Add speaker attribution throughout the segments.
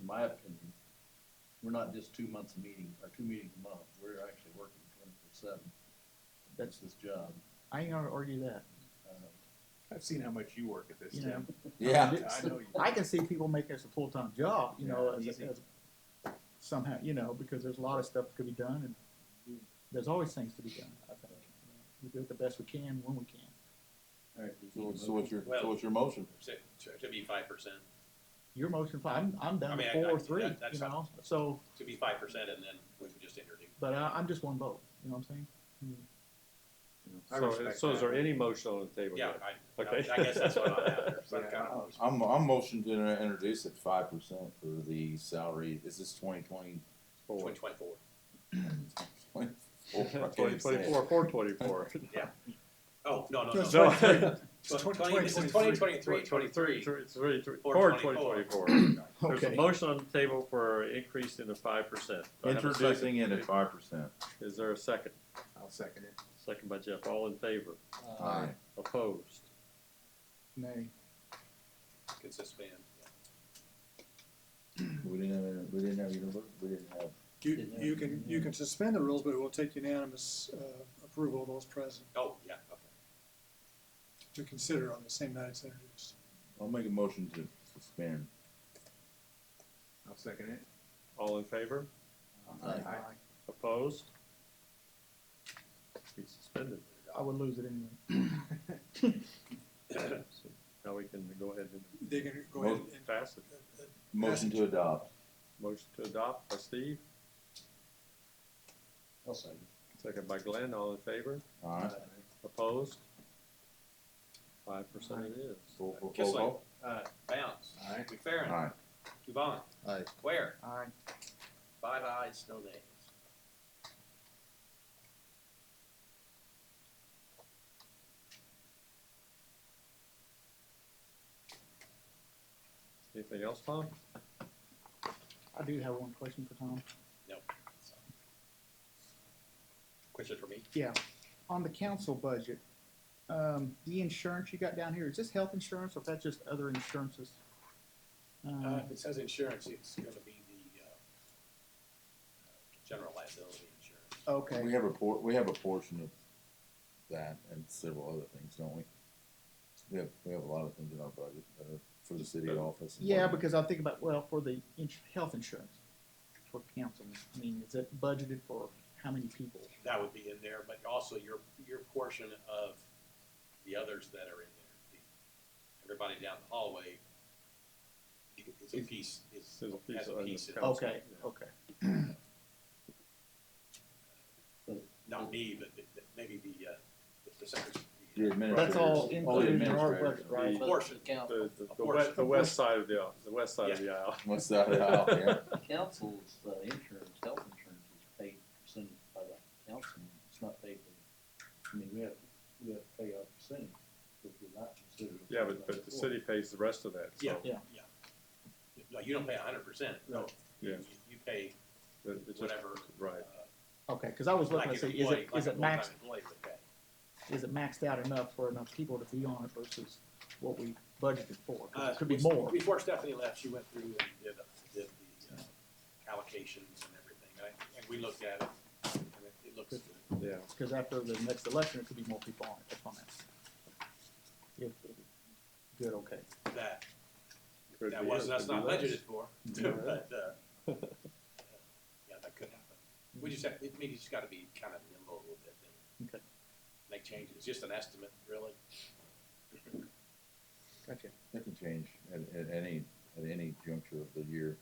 Speaker 1: in my opinion, we're not just two months a meeting, or two meetings a month, we're actually working twenty-four seven. That's this job.
Speaker 2: I ain't gonna argue that.
Speaker 1: Uh,
Speaker 3: I've seen how much you work at this,
Speaker 2: You know.
Speaker 3: Tim.
Speaker 4: Yeah.
Speaker 3: I know you.
Speaker 2: I can see people make this a full time job, you know,
Speaker 3: Yeah,
Speaker 2: as,
Speaker 3: easy.
Speaker 2: as somehow, you know, because there's a lot of stuff that could be done, and there's always things to be done. I think we do it the best we can when we can.
Speaker 1: all right,
Speaker 4: So, so what's your, so
Speaker 5: Well-
Speaker 4: what's your motion?
Speaker 5: to, to- to be five percent,
Speaker 2: Your motion, fi- I'm I'm
Speaker 5: I
Speaker 2: down
Speaker 5: mean,
Speaker 2: to
Speaker 5: I-
Speaker 2: four
Speaker 5: I-
Speaker 2: or three,
Speaker 5: that-
Speaker 2: you
Speaker 5: that's
Speaker 2: know. So,
Speaker 5: to be five percent, and then we could just introduce.
Speaker 2: but I, I'm just one vote. You know what I'm saying?
Speaker 3: I
Speaker 6: So,
Speaker 3: respect
Speaker 6: so is
Speaker 3: that.
Speaker 6: there any motion on the table?
Speaker 5: Yeah,
Speaker 6: yet?
Speaker 5: I,
Speaker 6: Okay.
Speaker 5: I guess that's what I'm uh, after.
Speaker 3: So I kinda always-
Speaker 4: I'm, I'm motion to inter- introduce at five percent for the salary, is this twenty twenty?
Speaker 6: Four.
Speaker 5: Twenty twenty-four.
Speaker 6: Twenty twenty-four, four twenty-four.
Speaker 5: Oh, no, no, no.
Speaker 6: No.
Speaker 5: Tw- Twenty, this is twenty twenty-three, twenty-three.
Speaker 6: Three, three, three,
Speaker 5: Four
Speaker 6: four twenty
Speaker 5: 24.
Speaker 6: twenty-four. There's a
Speaker 2: Okay.
Speaker 6: motion on the table for increase in the five percent.
Speaker 4: Introducing it at five percent.
Speaker 6: Is there a second?
Speaker 3: I'll second it.
Speaker 6: Second by Jeff, all in favor,
Speaker 4: Aye.
Speaker 6: opposed?
Speaker 2: Nay.
Speaker 5: Consistent, yeah.
Speaker 4: We didn't have, we didn't have, either- we didn't have,
Speaker 7: You, you can, you can suspend the rules, but it will take unanimous uh, approval of those present
Speaker 5: Oh, yeah, okay.
Speaker 7: to consider on the same night it's introduced.
Speaker 4: I'll make a motion to suspend.
Speaker 3: I'll second it.
Speaker 6: All in favor,
Speaker 4: Aye.
Speaker 3: Aye.
Speaker 6: opposed? Be suspended.
Speaker 2: I would lose it anyway.
Speaker 6: So Now we can go ahead and
Speaker 7: They can go ahead and,
Speaker 6: pass it.
Speaker 4: Motion to adopt.
Speaker 6: Motion to adopt by Steve,
Speaker 1: I'll second.
Speaker 6: second by Glenn, all in favor,
Speaker 4: Alright.
Speaker 6: opposed? Five percent it is.
Speaker 4: Roll for- roll
Speaker 5: Kissling.
Speaker 4: call.
Speaker 5: Uh, Bounce.
Speaker 3: Aye.
Speaker 5: McFerrin.
Speaker 4: Aye.
Speaker 5: Dubon.
Speaker 1: Aye.
Speaker 5: Ware.
Speaker 2: Aye.
Speaker 5: Five ayes, no nays.
Speaker 6: Anything else, Tom?
Speaker 2: I do have one question for Tom.
Speaker 5: So. Question for me?
Speaker 2: Yeah, on the council budget, um, the insurance you got down here, is this health insurance or is that just other insurances?
Speaker 5: Uh,
Speaker 2: Uh,
Speaker 5: if it says insurance, it's gonna be the, uh, general liability insurance.
Speaker 2: okay,
Speaker 4: We have a por, we have a portion of that and several other things, don't we? We have, we have a lot of things in our budget, uh, for the city office. and
Speaker 2: yeah,
Speaker 4: whatnot.
Speaker 2: because I think about, well, for the ins- health insurance for council, I mean, is it budgeted for how many people?
Speaker 5: That would be in there, but also your, your portion of the others that are in there. The- Everybody down the hallway is a piece, is,
Speaker 6: There's a piece
Speaker 5: Has a
Speaker 6: on the
Speaker 5: piece of-
Speaker 6: council.
Speaker 2: Okay, okay,
Speaker 5: not me, but the- the- maybe the, uh, the- the secretary.
Speaker 4: The administrators.
Speaker 2: that's all
Speaker 4: the
Speaker 2: included in our
Speaker 4: administrators.
Speaker 2: budget, right?
Speaker 5: Portion.
Speaker 6: The, the,
Speaker 5: A
Speaker 6: the
Speaker 5: portion.
Speaker 6: west, the west side of the, aisle- the west side of the aisle.
Speaker 4: What's that, uh, out there?
Speaker 1: Council's, uh, insurance, health insurance is paid percentage by the council, it's not paid by, I mean, we have, we have to pay our percentage, which we're not considered.
Speaker 6: Yeah, but, but the city pays the rest of that,
Speaker 5: Yeah,
Speaker 6: so
Speaker 2: Yeah.
Speaker 5: yeah. No, you don't pay a hundred percent, no.
Speaker 6: Yeah.
Speaker 5: You- You pay
Speaker 6: it it just,
Speaker 5: whatever.
Speaker 6: right.
Speaker 5: uh,
Speaker 2: Okay, cause I was
Speaker 5: Like
Speaker 2: looking
Speaker 5: an
Speaker 2: to see, is
Speaker 5: employee,
Speaker 2: it,
Speaker 5: like
Speaker 2: is
Speaker 5: a
Speaker 2: it maxed,
Speaker 5: full-time employee would pay.
Speaker 2: is it maxed out enough for enough people to be on it versus what we budgeted for? 'Cause
Speaker 5: Uh,
Speaker 2: it Could be
Speaker 5: we-
Speaker 2: more.
Speaker 5: Before Stephanie left, she went through and did, did the uh, allocations and everything, and I- and we looked at it, and it- it looks good.
Speaker 6: Yeah,
Speaker 2: Because after the next election, it could be more people on it, that's what I'm asking. If, good, okay.
Speaker 5: That,
Speaker 6: could
Speaker 5: that
Speaker 6: be,
Speaker 5: was,
Speaker 6: it
Speaker 5: that's
Speaker 6: could be
Speaker 5: not
Speaker 6: less.
Speaker 5: budgeted for, but, uh, uh, yeah, that could happen. We just have, it- maybe just gotta be kind of nimble a little bit and
Speaker 2: Okay.
Speaker 5: make changes, It's just an estimate, really.
Speaker 2: Gotcha.
Speaker 4: That can change at, at any, at any juncture of the year.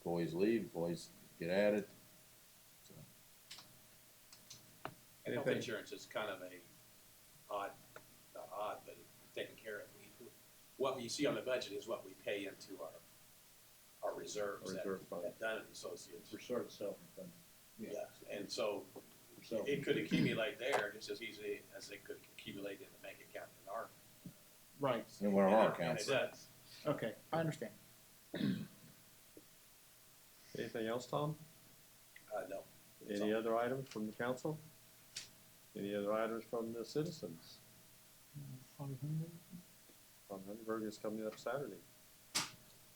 Speaker 4: Employees leave, employees get added. So,
Speaker 5: And health
Speaker 6: Anything?
Speaker 5: insurance is kind of a odd, not odd, but taken care of. We- What you see on the budget is what we pay into our, our reserves that,
Speaker 6: Reserve fund.
Speaker 5: that Dunn and Associates.
Speaker 1: For sort of self-funded.
Speaker 5: Yeah, and so
Speaker 1: for self-
Speaker 5: it could accumulate there just as easily as it could accumulate in the bank account in our.
Speaker 2: Right,
Speaker 4: And one of our
Speaker 5: in and
Speaker 4: accounts.
Speaker 5: It does.
Speaker 2: okay, I understand.
Speaker 6: Anything else, Tom?
Speaker 5: Uh, no. It's
Speaker 6: Any
Speaker 5: all-
Speaker 6: other items from the council? Any other items from the citizens? From Hindenburg is coming up Saturday.